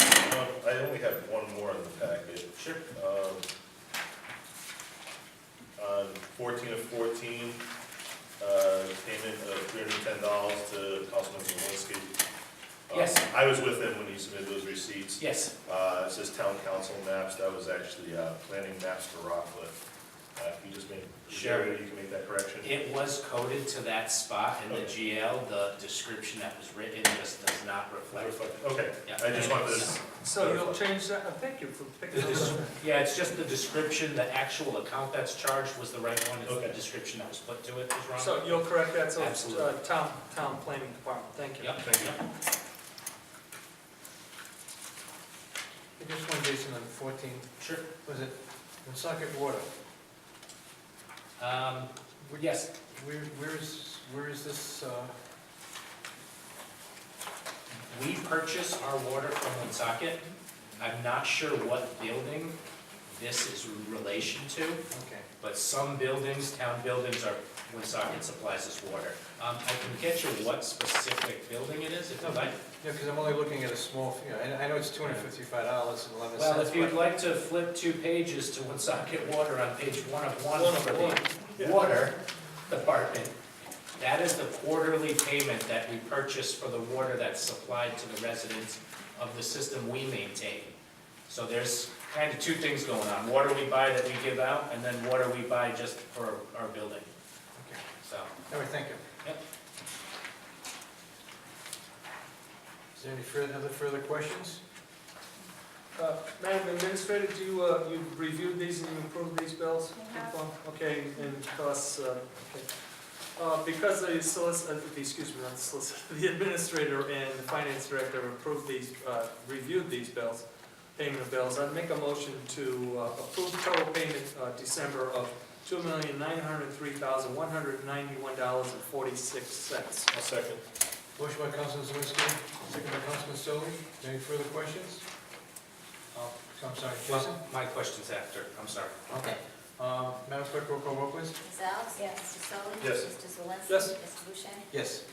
Um, I only have one more in the packet. Sure. Um, On fourteen of fourteen, uh, payment of three hundred and ten dollars to Councilman Zawinski. Um, Yes. I was with him when he submitted those receipts. Yes, Uh, it says town council maps, that was actually, uh, planning maps for Rockland. Uh, if you just make, is there a way you can make that correction? it was coded to that spot in the GL, the description that was written just does not reflect. Okay, Yeah. I just wanted to, So you'll change that, oh, thank you for picking up on that. Yeah, it's just the description, the actual account that's charged was the right one, it's the Okay. description that was put to it was wrong. So you'll correct that, so it's uh, Absolutely. town, town planning department, thank you. Yep, yep. Just one, Jason, on fourteen, Sure. was it Woonsocket Water? Um, yes, Where, where is, where is this, uh, we purchase our water from Woonsocket. I'm not sure what building this is in relation to, okay. but some buildings, town buildings are, Woonsocket supplies us water. Um, I can get you what specific building it is if you'd like. Yeah, because I'm only looking at a small, you know, I, I know it's two hundred fifty-five dollars and eleven cents. Well, if you'd like to flip two pages to Woonsocket Water on page one of one One of for one, the water department, that is the quarterly payment that we purchase for the water that's supplied to the residents of the system we maintain. So there's kind of two things going on, water we buy that we give out, and then water we buy just for our building, so. All right, thank you. Yep. Is there any further, other further questions? Uh, Madam Administrator, do you, uh, you reviewed these and you approved these bills? I have. Okay, and costs, uh, okay. Uh, Because the solicitor, excuse me, not the solicitor, the administrator and the finance director approved these, uh, reviewed these bills, payment of bills, I'd make a motion to uh, approve total payment uh, December of $2,903,191.46. I'll second. Motion by Councilman Zawinski, second by Councilman Stoli. Any further questions? Uh, I'm sorry, Jason? My question's after, I'm sorry. Okay. Uh, Madam Clerk, roll call, vote, please. Ms. Alves? Yes. Mr. Solly? Yes. Mr. Zelinski? Yes. Mr. Bushet? Yes.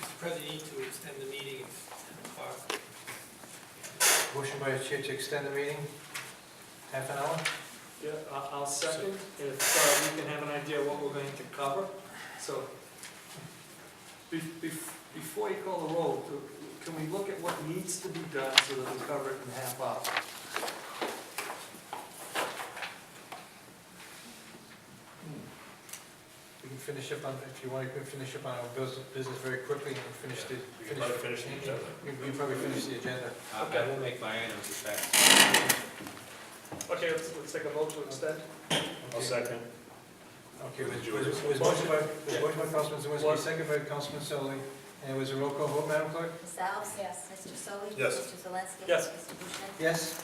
Mr. President, you need to extend the meeting if ten o'clock. Motion by the chair to extend the meeting, half an hour? Yeah, I- I'll second, if uh, we can have an idea what we're going to cover, so. be- be- Before you call the roll, do- can we look at what needs to be done so that we cover it in half hour? We can finish up on, if you want, we can finish up on our bus- business very quickly and finish the. We can probably finish the agenda. We we can probably finish the agenda. Uh, I will make my items as fast Okay, let's, let's take a vote to extend. I'll second. Okay, was, was was motion by, was motion by Councilman Zawinski, second by Councilman Sullivan, and was a roll call vote, Madam Clerk? Ms. Alves? Yes. Mr. Solly? Yes. Mr. Zelinski? Yes. Mr. Bushet? Yes.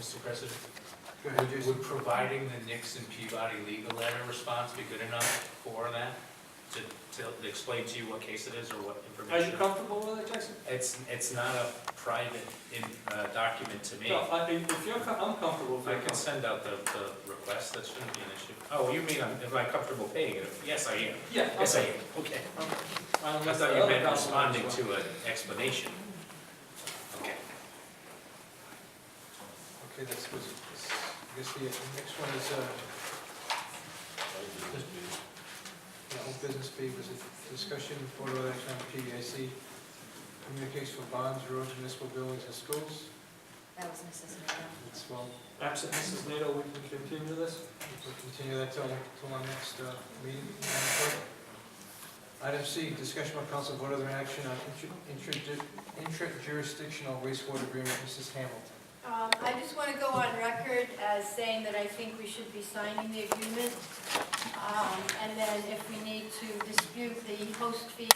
Mr. President? Go ahead, Jason. Would providing the Nixon Peabody legal letter response be good enough for that? To, to explain to you what case it is or what Are you information? comfortable with it, Jackson? It's, it's not a private in, uh, document to me. No, I, if if you're, co- I'm comfortable with I can it. send out the, the request, that shouldn't be an issue. Oh, you mean, I'm- am I comfortable paying it? Yes, I am. Yeah. Yes, I am, okay. I thought you meant responding to an explanation. Okay. Okay, that's, was, I guess the next one is, uh, the whole business B was a discussion, board of action on PBIC, communication for bonds, roads, municipal buildings, and schools. That was Mrs. Nato. It's well, Absent Mrs. NATO, we can continue this? We'll continue that till, till our next uh, meeting. Madam Clerk. Item C, discussion by council vote other action on intra- intra- intra-jurisdictional wastewater agreement, Mrs. Hamilton. Um, I just want to go on record as saying that I think we should be signing the agreement. Um, And then if we need to dispute the host fee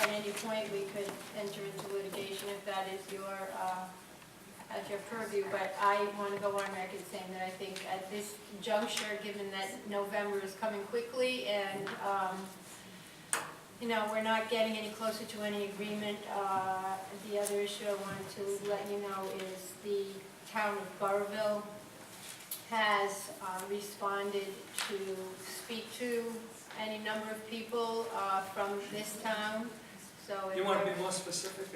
at any point, we could enter into litigation if that is your, uh, at your purview. But I want to go on record saying that I think at this juncture, given that November is coming quickly and, um, you know, we're not getting any closer to any agreement. Uh, The other issue I wanted to let you know is the town of Burrville has uh, responded to speak to any number of people uh, from this town, so. if You want to there- be more specific?